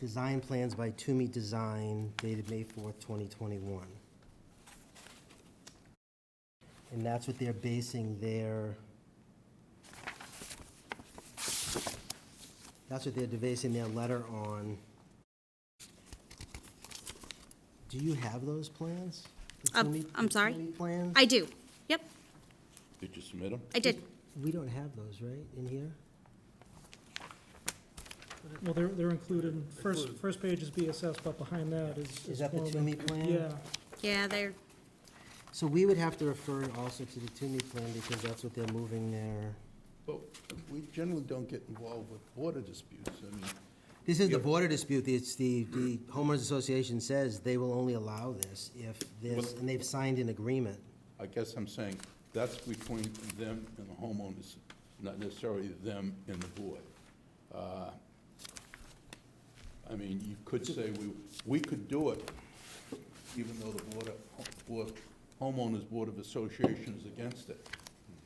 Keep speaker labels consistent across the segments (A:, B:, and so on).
A: Design plans by Toomey Design dated May 4th, 2021. And that's what they're basing their, that's what they're basing their letter on. Do you have those plans? The
B: Um,
A: Toomey-
B: I'm
A: the
B: sorry?
A: Toomey plans?
B: I do. Yep,
C: Did you submit them?
B: I did.
A: We don't have those, right, in here?
D: Well, they're, they're included, in- first, first page is BSS, but behind that is.
A: Is that the
D: Gorman.
A: Toomey plan?
D: Yeah,
B: Yeah, they're,
A: So we would have to refer also to the Toomey plan because that's what they're moving there.
C: But we generally don't get involved with border disputes. I mean,
A: This is the border dispute, it's the, the homeowners association says they will only allow this if this, and they've signed an agreement.
C: I guess I'm saying that's between them and the homeowners, not necessarily them and the board. Uh, I mean, you could say we, we could do it, even though the board, of- board- homeowners board of association is against it.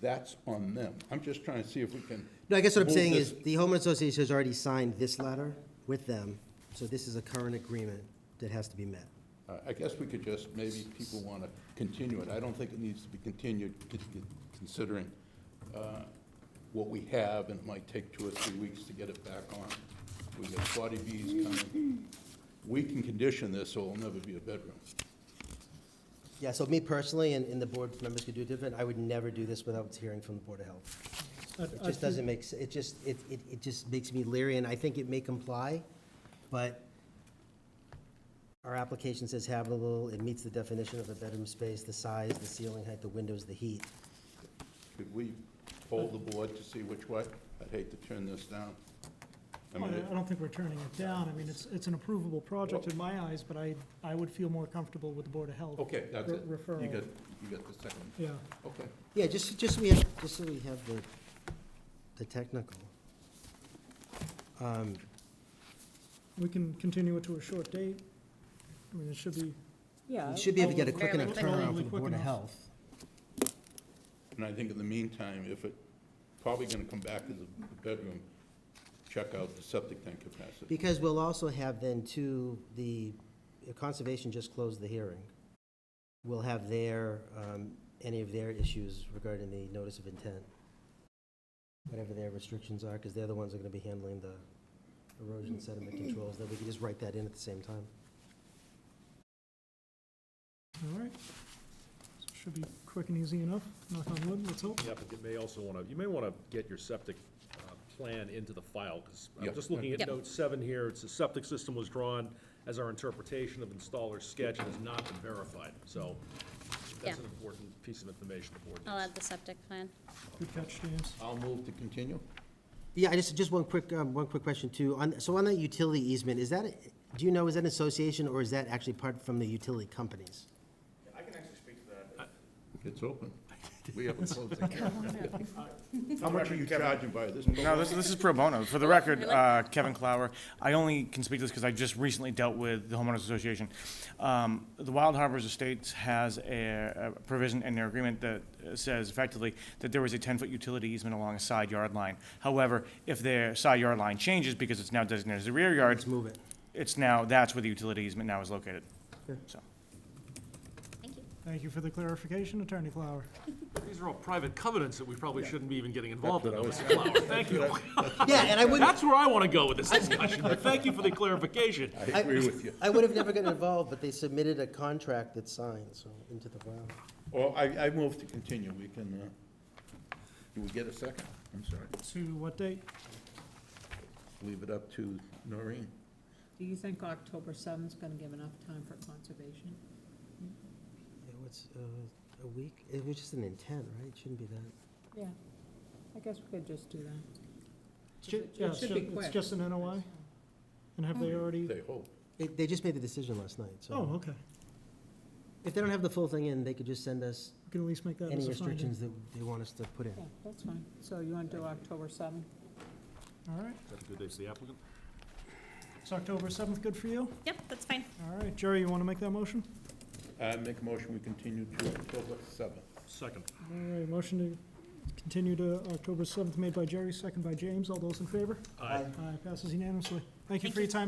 C: That's on them. I'm just trying to see if we can.
A: No, I guess what I'm
C: move
A: saying
C: this-
A: is, the homeowners association has already signed this letter with them, so this is a current agreement that has to be met.
C: Uh, I guess we could just, maybe people want to continue it. I don't think it needs to be continued, c- c- considering uh, what we have, and it might take two or three weeks to get it back on. We got 40 Bs coming. We can condition this, so it'll never be a bedroom.
A: Yeah, so me personally, and, and the board members could do it different, I would never do this without hearing from the Board of Health.
D: I- I
A: It just
D: think-
A: doesn't make, s- it just, it, it, it just makes me leery, and I think it may comply, but our application says habitable, it meets the definition of a bedroom space, the size, the ceiling height, the windows, the heat.
C: Could we poll the board to see which way? I'd hate to turn this down. I
D: Well,
C: mean,
D: Oh, I I
C: it-
D: don't think we're turning it down, I mean, it's, it's an approvable project in my eyes, but I, I would feel more comfortable with the Board of Health.
C: okay, that's
D: re-
C: it. You
D: Referral.
C: got, you got the second.
D: Yeah,
C: Okay.
A: Yeah, just, just so we have, just so we have the, the technical. Um,
D: we can continue it to a short date, I mean, it should be,
E: Yeah.
A: We should be able to get a quick
B: Fairly
A: enough
B: quick.
A: turnaround for
D: Probably
A: the
D: quick
A: Board of
D: enough.
A: Health.
C: And I think in the meantime, if it, probably gonna come back as a bedroom, check out the septic tank capacity.
A: Because we'll also have then too, the the Conservation just closed the hearing. We'll have their, um, any of their issues regarding the notice of intent, whatever their restrictions are, because they're the ones that are going to be handling the erosion sediment controls, that we can just write that in at the same time.
D: all right. So it Should be quick and easy enough, knock on wood, let's hope.
F: The applicant may also want to, you may want to get your septic uh, plan into the file, because
C: Yeah.
F: I'm just looking at
B: Yep.
F: note seven here, it's the septic system was drawn as our interpretation of installer's sketch and has not been verified, so
B: Yeah.
F: that's an important piece of information the board
B: I'll
F: needs.
B: add the septic plan.
D: Good catch, James.
C: I'll move to continue.
A: Yeah, I just, just one quick, um, one quick question too. On, so on that utility easement, is that, a- do you know, is that an association or is that actually part from the utility companies?
G: I can actually speak to that.
C: It's open. We haven't closed the How much are you charging by this?
G: No, this, this is pro bono. For the record, uh, Kevin Clower, I only can speak to this because I just recently dealt with the homeowners association. Um, The Wild Harbors Estates has a a provision in their agreement that uh, says effectively that there was a 10-foot utility easement along a side yard line. However, if their side yard line changes because it's now designated as a rear yard,
A: Let's move it.
G: it's now, that's where the utility easement now is located. So,
B: Thank you.
D: Thank you for the clarification, Attorney Flower.
F: These are all private covenants that we probably shouldn't be even getting involved in, though, Mr. Flower, thank you.
A: Yeah, and I wouldn't,
F: That's where I want to go with this discussion, but thank you for the clarification.
C: I agree with you.
A: I would have never gotten involved, but they submitted a contract that's signed, so into the file.
C: Well, I, I move to continue. We can, uh, do we get a second? I'm sorry.
D: To what date?
C: Leave it up to Noreen.
E: Do you think October seventh's gonna give enough time for conservation?
A: Yeah, what's, uh, a week? It was just an intent, right? It Shouldn't be that.
E: Yeah, I guess we could just do that.
D: Ju-
E: It
D: yeah,
E: should
D: so
E: be
D: It's
E: quick.
D: just an NOI? And have they already?
C: They hope.
A: It, they just made the decision last night, so.
D: Oh, okay.
A: If they don't have the full thing in, they could just send us
D: We can at least make that
A: any
D: as a
A: restrictions
D: finding.
A: that they want us to put in.
E: Yeah, that's fine. So you wanna do October seventh?
D: All right.
F: Is that a good day for the applicant?
D: Is October 7th good for you?
B: Yep, that's fine.
D: All right, Jerry, you want to make that motion?
C: I make a motion, we continue to October seventh.
F: Second.
D: All right, motion to continue to October 7th, made by Jerry, second by James. All those in favor?
F: Aye.
D: Aye, passes unanimously. Thank you
B: Thank
D: for your time.